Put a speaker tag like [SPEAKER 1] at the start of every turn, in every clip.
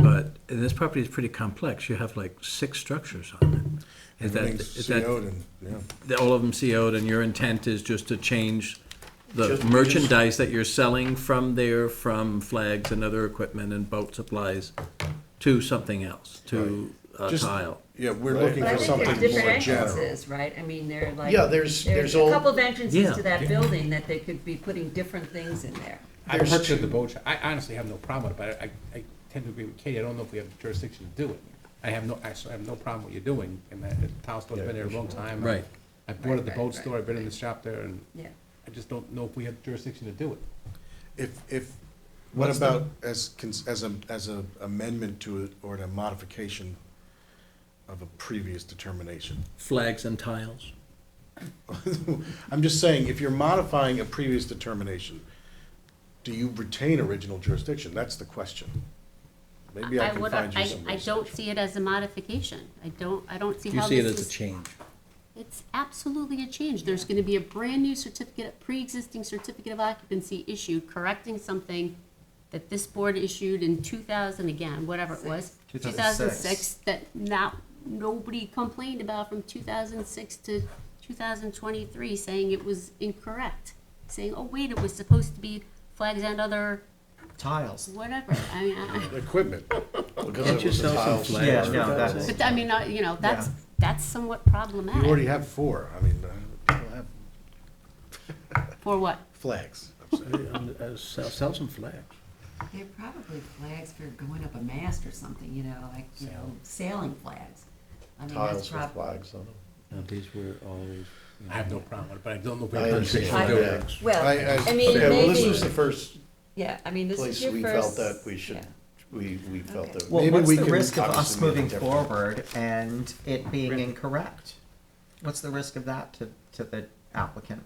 [SPEAKER 1] but this property is pretty complex. You have like six structures on it. Is that- is
[SPEAKER 2] Everything's
[SPEAKER 1] that-
[SPEAKER 2] CO'd and, yeah.
[SPEAKER 1] that All of them CO'd, and your intent is just to change the
[SPEAKER 3] Just-
[SPEAKER 1] merchandise that you're selling from there, from flags and other equipment and boat supplies, to something else, to uh,
[SPEAKER 2] Just-
[SPEAKER 1] tile.
[SPEAKER 2] Yeah, we're
[SPEAKER 3] Right.
[SPEAKER 2] looking
[SPEAKER 4] But I
[SPEAKER 2] for
[SPEAKER 4] think
[SPEAKER 2] something
[SPEAKER 4] there's
[SPEAKER 2] more
[SPEAKER 4] different
[SPEAKER 2] general.
[SPEAKER 4] entrances, right? I mean, they're like.
[SPEAKER 3] Yeah, there's- there's
[SPEAKER 4] a
[SPEAKER 3] all-
[SPEAKER 4] couple of entrances
[SPEAKER 1] Yeah.
[SPEAKER 4] to that building that they could be putting different things in there.
[SPEAKER 5] I
[SPEAKER 3] There's
[SPEAKER 5] purchased
[SPEAKER 3] two.
[SPEAKER 5] the boat, I honestly have no problem with it, but I, I tend to agree with Katie, I don't know if we have jurisdiction to do it. I have no, I s- I have no problem with you doing, and that, the town store's been there a long time.
[SPEAKER 1] Right.
[SPEAKER 5] I bought at the
[SPEAKER 4] Right, right,
[SPEAKER 5] boat store, I've been in the
[SPEAKER 4] right.
[SPEAKER 5] shop there, and
[SPEAKER 4] Yeah.
[SPEAKER 5] I just don't know if we have jurisdiction to do it.
[SPEAKER 2] If, if, what
[SPEAKER 5] What's the-
[SPEAKER 2] about as, cons- as a, as a amendment to it or a modification of a previous determination?
[SPEAKER 1] Flags and tiles.
[SPEAKER 2] I'm just saying, if you're modifying a previous determination, do you retain original jurisdiction? That's the question. Maybe I can
[SPEAKER 6] would-
[SPEAKER 2] find you
[SPEAKER 6] I-
[SPEAKER 2] some.
[SPEAKER 6] I
[SPEAKER 2] reason.
[SPEAKER 6] don't see it as a modification. I don't, I don't see
[SPEAKER 1] Do you
[SPEAKER 6] how
[SPEAKER 1] see it
[SPEAKER 6] this
[SPEAKER 1] as a
[SPEAKER 6] is.
[SPEAKER 1] change?
[SPEAKER 6] It's absolutely a change. There's gonna be a brand-new certificate, pre-existing certificate of occupancy issued, correcting something that this board issued in two thousand again, whatever it was. Two thousand six. That not, nobody complained about from two thousand six to two thousand twenty-three, saying it was incorrect. Saying, oh, wait, it was supposed to be flags and other,
[SPEAKER 7] tiles.
[SPEAKER 6] whatever. I mean, I.
[SPEAKER 2] Equipment. because
[SPEAKER 1] Can't
[SPEAKER 2] it
[SPEAKER 1] you
[SPEAKER 2] was a
[SPEAKER 1] sell some
[SPEAKER 2] tiles.
[SPEAKER 1] flags
[SPEAKER 7] Yeah,
[SPEAKER 1] or
[SPEAKER 7] no,
[SPEAKER 1] tiles?
[SPEAKER 7] that's-
[SPEAKER 6] But I mean, uh, you know, that's,
[SPEAKER 7] Yeah.
[SPEAKER 6] that's somewhat
[SPEAKER 2] You already
[SPEAKER 6] problematic.
[SPEAKER 2] have four, I mean, uh, people have
[SPEAKER 6] For what?
[SPEAKER 2] flags. I'm saying.
[SPEAKER 1] Uh, Sell, sell some flags.
[SPEAKER 4] They're probably flags for going up a mast or something, you know, like, you know, sailing flags. I mean, that's
[SPEAKER 7] Tiles with
[SPEAKER 4] probably.
[SPEAKER 7] flags on them.
[SPEAKER 1] Now, these were always.
[SPEAKER 5] I have
[SPEAKER 4] Mm-hmm.
[SPEAKER 5] no problem with it, but I don't know if we
[SPEAKER 7] I
[SPEAKER 5] have jurisdiction to
[SPEAKER 7] understand
[SPEAKER 5] do
[SPEAKER 7] that.
[SPEAKER 5] it.
[SPEAKER 2] I- I-
[SPEAKER 4] Well, I mean,
[SPEAKER 7] Yeah, well, this
[SPEAKER 4] maybe,
[SPEAKER 7] was the first
[SPEAKER 4] yeah, I mean, this is
[SPEAKER 7] place
[SPEAKER 4] your
[SPEAKER 7] we
[SPEAKER 4] first.
[SPEAKER 7] felt that we should,
[SPEAKER 4] yeah.
[SPEAKER 7] we, we felt
[SPEAKER 4] Okay.
[SPEAKER 7] that.
[SPEAKER 2] Maybe
[SPEAKER 7] Well, what's
[SPEAKER 2] we
[SPEAKER 7] the
[SPEAKER 2] can
[SPEAKER 7] risk of us
[SPEAKER 2] obviously make it
[SPEAKER 7] moving
[SPEAKER 2] different.
[SPEAKER 7] forward and it being incorrect? What's the risk of that to, to the applicant?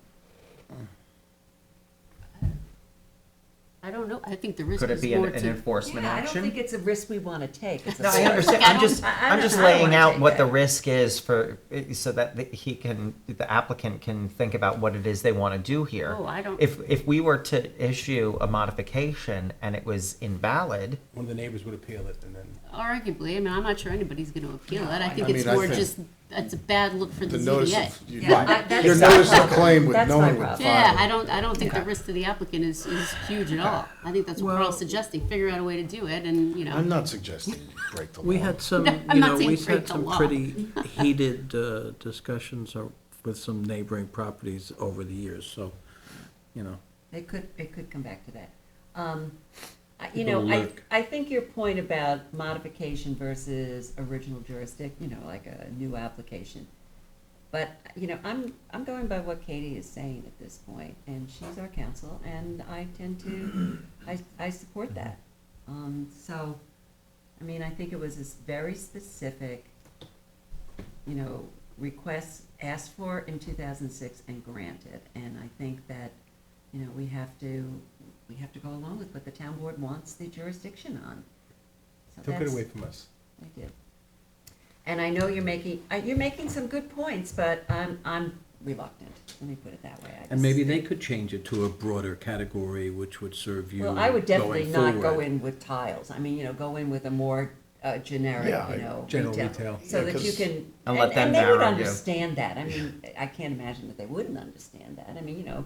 [SPEAKER 6] I don't know. I think the risk
[SPEAKER 7] Could it
[SPEAKER 6] is
[SPEAKER 7] be an
[SPEAKER 6] more
[SPEAKER 7] an
[SPEAKER 6] to.
[SPEAKER 7] enforcement
[SPEAKER 4] Yeah, I don't think
[SPEAKER 7] action?
[SPEAKER 4] it's a risk we want to take. It's a
[SPEAKER 7] No, I
[SPEAKER 4] risk.
[SPEAKER 7] understand,
[SPEAKER 6] I
[SPEAKER 7] I'm
[SPEAKER 6] don't-
[SPEAKER 7] just,
[SPEAKER 4] I- I
[SPEAKER 7] I'm
[SPEAKER 4] don't-
[SPEAKER 7] just
[SPEAKER 4] I don't
[SPEAKER 7] laying
[SPEAKER 4] wanna
[SPEAKER 7] out
[SPEAKER 4] take
[SPEAKER 7] what the
[SPEAKER 4] that.
[SPEAKER 7] risk is for, so that the- he can, the applicant can think about what it is they want to do here.
[SPEAKER 6] Oh, I don't-
[SPEAKER 7] If, if we were to issue a modification and it was invalid,
[SPEAKER 5] One of the neighbors would appeal it, and then,
[SPEAKER 4] Oh,
[SPEAKER 6] Arguably, I mean, I'm not sure anybody's gonna appeal it. I think
[SPEAKER 2] I
[SPEAKER 6] it's
[SPEAKER 2] mean, I
[SPEAKER 6] more
[SPEAKER 2] think-
[SPEAKER 6] just, that's a bad look for the
[SPEAKER 2] The notice
[SPEAKER 6] ZBA.
[SPEAKER 2] of, you-
[SPEAKER 4] Yeah, I- that's
[SPEAKER 2] your
[SPEAKER 4] my
[SPEAKER 2] notice of
[SPEAKER 4] problem.
[SPEAKER 2] claim with
[SPEAKER 4] That's
[SPEAKER 2] no
[SPEAKER 4] my
[SPEAKER 2] one would
[SPEAKER 4] problem.
[SPEAKER 6] Yeah,
[SPEAKER 2] file it.
[SPEAKER 6] I don't, I don't think the risk to the applicant is, is huge at all. I think that's what we're all
[SPEAKER 1] Well-
[SPEAKER 6] suggesting, figure out a way to do it and, you
[SPEAKER 2] I'm
[SPEAKER 6] know.
[SPEAKER 2] not suggesting you break the law.
[SPEAKER 1] We had some,
[SPEAKER 6] No, I'm
[SPEAKER 1] you
[SPEAKER 6] not
[SPEAKER 1] know,
[SPEAKER 6] saying
[SPEAKER 1] we had
[SPEAKER 6] break the
[SPEAKER 1] some
[SPEAKER 6] law.
[SPEAKER 1] pretty heated uh, discussions or- with some neighboring properties over the years, so, you know.
[SPEAKER 4] It could, it could come back to that. Um, I- You
[SPEAKER 1] People
[SPEAKER 4] know, I,
[SPEAKER 1] look.
[SPEAKER 4] I think your point about modification versus original jurisdiction, you know, like a new application. But, you know, I'm, I'm going by what Katie is saying at this point, and she's our counsel, and I tend to, I, I support that. Um, So, I mean, I think it was this very specific, you know, requests asked for in two thousand six and granted. And I think that, you know, we have to, we have to go along with what the town board wants the jurisdiction on. So
[SPEAKER 5] took it
[SPEAKER 4] that's-
[SPEAKER 5] away from us.
[SPEAKER 4] I did. And I know you're making, uh, you're making some good points, but I'm, I'm reluctant, let me put it that way. I
[SPEAKER 1] And maybe
[SPEAKER 4] just-
[SPEAKER 1] they could change it to a broader category, which would serve you
[SPEAKER 4] Well, I would definitely
[SPEAKER 1] going
[SPEAKER 4] not go
[SPEAKER 1] forward.
[SPEAKER 4] in with tiles, I mean, you know, go in with a more uh, generic,
[SPEAKER 2] Yeah,
[SPEAKER 4] you know,
[SPEAKER 5] general
[SPEAKER 4] retail.
[SPEAKER 5] retail.
[SPEAKER 4] So
[SPEAKER 2] Yeah,
[SPEAKER 4] that you
[SPEAKER 2] 'cause-
[SPEAKER 4] can,
[SPEAKER 7] And
[SPEAKER 4] and,
[SPEAKER 7] let them
[SPEAKER 4] and they would
[SPEAKER 7] narrow you.
[SPEAKER 4] understand that, I mean, I can't imagine that they wouldn't understand that, I mean, you know,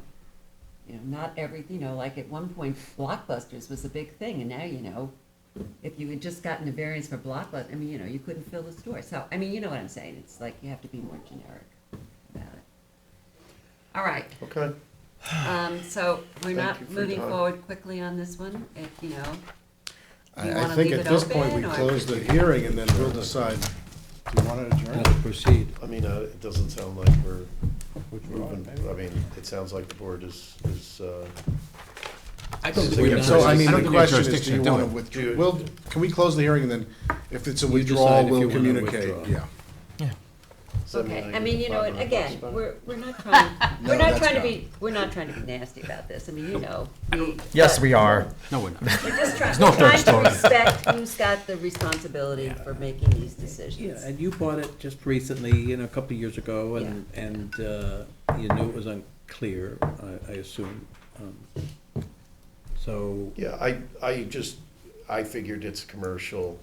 [SPEAKER 4] you know, not every, you know, like at one point Blockbusters was a big thing, and now, you know, if you had just gotten a variance for Blockbuster, I mean, you know, you couldn't fill the store. So, I mean, you know what I'm saying? It's like you have to be more generic about it. All right,
[SPEAKER 2] Okay.
[SPEAKER 4] um, so we're
[SPEAKER 2] you
[SPEAKER 4] not
[SPEAKER 2] for your
[SPEAKER 4] moving
[SPEAKER 2] time.
[SPEAKER 4] forward quickly on this one, if, you know. Do
[SPEAKER 2] I,
[SPEAKER 4] you
[SPEAKER 2] I
[SPEAKER 4] wanna
[SPEAKER 2] think
[SPEAKER 4] leave
[SPEAKER 2] at
[SPEAKER 4] it
[SPEAKER 2] this point, we
[SPEAKER 4] open, or-
[SPEAKER 2] close the hearing and then we'll decide, do you want to adjourn?
[SPEAKER 1] Let's proceed.
[SPEAKER 8] I mean, uh, it doesn't sound like we're
[SPEAKER 5] Which we're on,
[SPEAKER 8] moving,
[SPEAKER 5] maybe.
[SPEAKER 8] I mean, it sounds like the board is, is, uh,
[SPEAKER 5] I don't think
[SPEAKER 8] So
[SPEAKER 5] we
[SPEAKER 8] yeah,
[SPEAKER 5] have
[SPEAKER 2] So I mean, the
[SPEAKER 5] jurisdiction- don't think we have
[SPEAKER 2] question is, do
[SPEAKER 5] jurisdiction
[SPEAKER 2] you
[SPEAKER 5] to
[SPEAKER 2] want
[SPEAKER 5] it.
[SPEAKER 2] to withdraw? Well, can we close the hearing and then if it's a
[SPEAKER 1] You decide
[SPEAKER 2] withdrawal,
[SPEAKER 1] if you
[SPEAKER 2] we'll
[SPEAKER 1] wanna
[SPEAKER 2] communicate?
[SPEAKER 1] withdraw.
[SPEAKER 2] Yeah.
[SPEAKER 8] seven
[SPEAKER 4] Okay, I
[SPEAKER 8] million,
[SPEAKER 4] mean, you know,
[SPEAKER 8] five
[SPEAKER 4] what,
[SPEAKER 8] hundred
[SPEAKER 4] again,
[SPEAKER 8] bucks back.
[SPEAKER 4] we're, we're not trying, we're
[SPEAKER 2] No,
[SPEAKER 4] not
[SPEAKER 2] that's
[SPEAKER 4] trying to
[SPEAKER 2] not.
[SPEAKER 4] be, we're not trying to be nasty about this, I mean, you know. we-
[SPEAKER 7] yes,
[SPEAKER 4] but
[SPEAKER 7] we are.
[SPEAKER 3] No, we're not.
[SPEAKER 4] We're just trying,
[SPEAKER 3] no
[SPEAKER 4] we're trying
[SPEAKER 3] third
[SPEAKER 4] to respect who's got the responsibility for making these decisions.
[SPEAKER 1] Yeah, and you bought it just recently, you know, a couple of years ago, and, and uh, you knew it was unclear, I- I assume. Um, So,
[SPEAKER 8] Yeah, I, I just, I figured it's commercial,